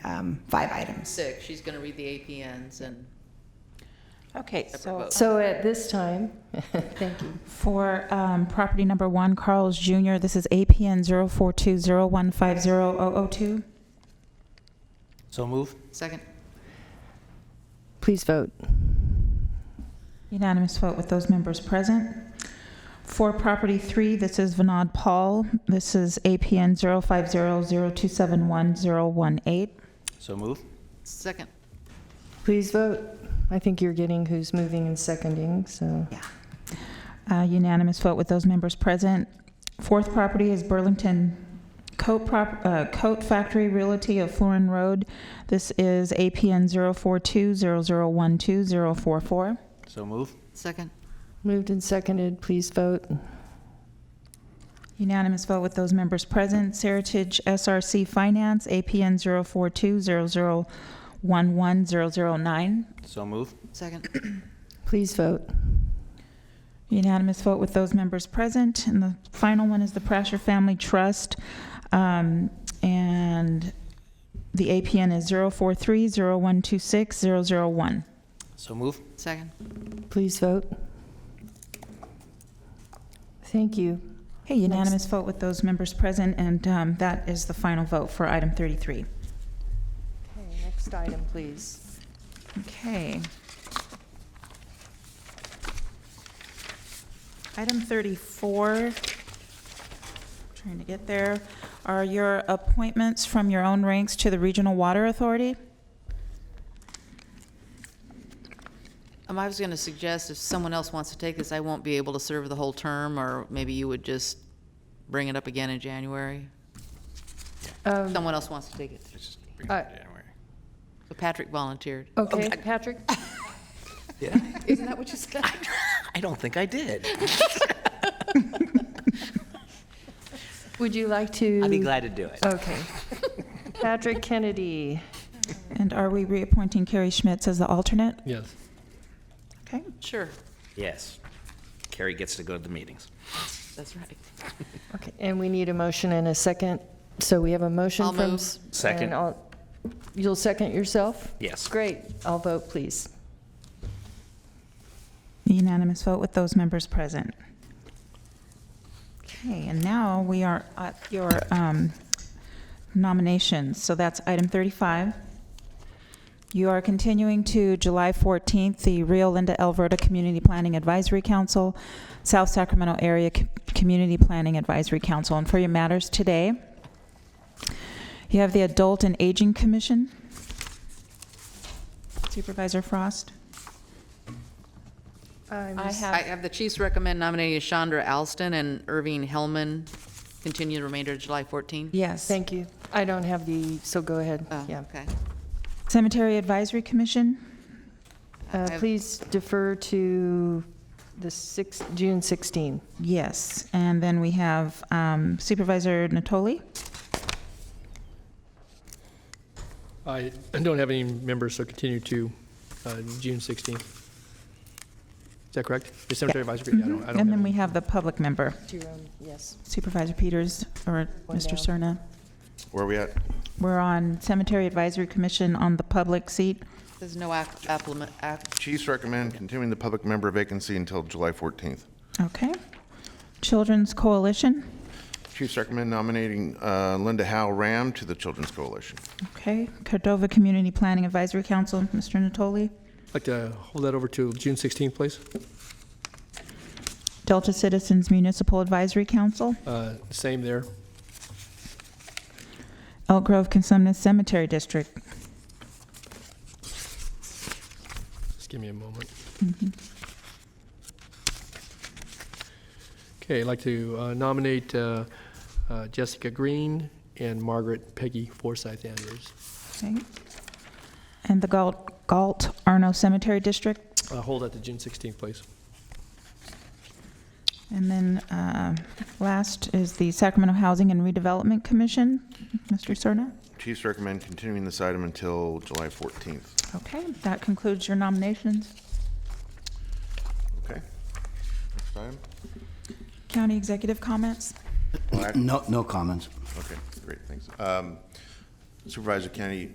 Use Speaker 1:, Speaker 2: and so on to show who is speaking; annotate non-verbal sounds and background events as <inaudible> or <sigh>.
Speaker 1: um, five items. <laughs>
Speaker 2: six, she's going to read the APNs and
Speaker 3: Okay, so
Speaker 2: vote.
Speaker 4: So at this time, thank you.
Speaker 3: for um, property number one, Carl's Jr., this is APN 0420150002.
Speaker 5: So move?
Speaker 2: second,
Speaker 6: Please vote.
Speaker 3: Unanimous vote with those members present. For property three, this is Vinod Paul, this is APN 0500271018.
Speaker 5: So move?
Speaker 2: second,
Speaker 6: Please vote. I think you're getting who's moving and seconding, so.
Speaker 1: Yeah.
Speaker 3: Uh, Unanimous vote with those members present. Fourth property is Burlington Coat Prop, uh, Coat Factory Realty of Florin Road. This is APN 0420012044.
Speaker 5: So move?
Speaker 2: second,
Speaker 6: Moved and seconded, please vote.
Speaker 3: Unanimous vote with those members present. Seritage SRC Finance, APN 0420011009.
Speaker 5: So move?
Speaker 2: second,
Speaker 6: Please vote.
Speaker 3: Unanimous vote with those members present. And the final one is the Prasher Family Trust. um, And the APN is 0430126001.
Speaker 5: So move?
Speaker 2: second.
Speaker 6: Please vote. Thank you.
Speaker 3: Hey, unanimous vote with those members present, and um, that is the final vote for item 33.
Speaker 6: Okay, next item, please.
Speaker 3: Okay. Item 34, trying to get there, are your appointments from your own ranks to the Regional Water Authority?
Speaker 2: Um, I was going to suggest if someone else wants to take this, I won't be able to serve the whole term, or maybe you would just bring it up again in January.
Speaker 6: Um,
Speaker 2: Someone else wants to take it.
Speaker 6: uh,
Speaker 2: So Patrick volunteered.
Speaker 5: Oh,
Speaker 6: Okay,
Speaker 5: <laughs>
Speaker 6: Patrick?
Speaker 2: <laughs> Isn't that what you said?
Speaker 5: I don't think I did.
Speaker 6: Would you like to?
Speaker 5: I'd be glad to do it.
Speaker 6: Okay. Patrick Kennedy.
Speaker 3: And are we reappointing Carrie Schmitz as the alternate?
Speaker 7: Yes.
Speaker 3: Okay.
Speaker 2: Sure,
Speaker 5: Yes. Carrie gets to go to the meetings.
Speaker 2: that's right.
Speaker 6: Okay, and we need a motion and a second. So we have a motion
Speaker 2: I'll
Speaker 6: from.
Speaker 2: move.
Speaker 5: Second.
Speaker 6: and I'll- You'll second yourself?
Speaker 5: Yes.
Speaker 6: Great. I'll vote, please.
Speaker 3: Unanimous vote with those members present. Okay, and now we are at your um, nominations. So that's item 35. You are continuing to July 14th, the Rio Linda Alberta Community Planning Advisory Council, South Sacramento Area Co- Community Planning Advisory Council. And for your matters today, you have the Adult and Aging Commission. Supervisor Frost?
Speaker 6: I
Speaker 2: I have the Chiefs recommend nominating Chandra Alston and Irving Hellman, continue the remainder of July 14.
Speaker 3: Yes.
Speaker 6: Thank you. I don't have the, so go ahead.
Speaker 2: Oh,
Speaker 6: Yeah.
Speaker 2: Okay.
Speaker 3: Cemetery Advisory Commission,
Speaker 6: Uh,
Speaker 2: I-
Speaker 6: Please defer to the 6, June 16.
Speaker 3: yes. And then we have um, Supervisor Natoli.
Speaker 7: I don't have any members, so continue to uh, June 16th. Is that correct? The cemetery advisory, yeah, I don't, I don't.
Speaker 3: Mm-hmm. And then
Speaker 7: have
Speaker 3: we
Speaker 7: any.
Speaker 3: have the public member,
Speaker 6: Jerome, yes.
Speaker 3: Supervisor Peters or
Speaker 6: One
Speaker 3: Mr.
Speaker 6: down.
Speaker 3: Serna.
Speaker 8: Where are we at?
Speaker 3: We're on Cemetery Advisory Commission on the public seat.
Speaker 2: There's no ac- applement, ac-
Speaker 8: Chiefs recommend continuing the public member vacancy until July 14th.
Speaker 3: Okay. Children's Coalition,
Speaker 8: Chiefs recommend nominating uh, Linda Howe Ram to the Children's Coalition.
Speaker 3: okay. Cordova Community Planning Advisory Council, Mr. Natoli.
Speaker 7: I'd like to hold that over to June 16th, please.
Speaker 3: Delta Citizens Municipal Advisory Council,
Speaker 7: Uh, Same there.
Speaker 3: Elk Grove Consumnes Cemetery District.
Speaker 7: Just give me a moment.
Speaker 3: Mm-hmm.
Speaker 7: Okay, I'd like to uh, nominate uh, uh, Jessica Green and Margaret Peggy Forsyth Andrews.
Speaker 3: Okay. And the Galt, Galt Arno Cemetery District.
Speaker 7: Uh, Hold that to June 16th, please.
Speaker 3: And then uh, last is the Sacramento Housing and Redevelopment Commission. Mr. Serna?
Speaker 8: Chiefs recommend continuing this item until July 14th.
Speaker 3: Okay, that concludes your nominations.
Speaker 8: Okay? Next item?
Speaker 3: County executive comments?
Speaker 8: Black?
Speaker 9: No, no comments.
Speaker 8: Okay, great, thanks. Um, Supervisor Kennedy,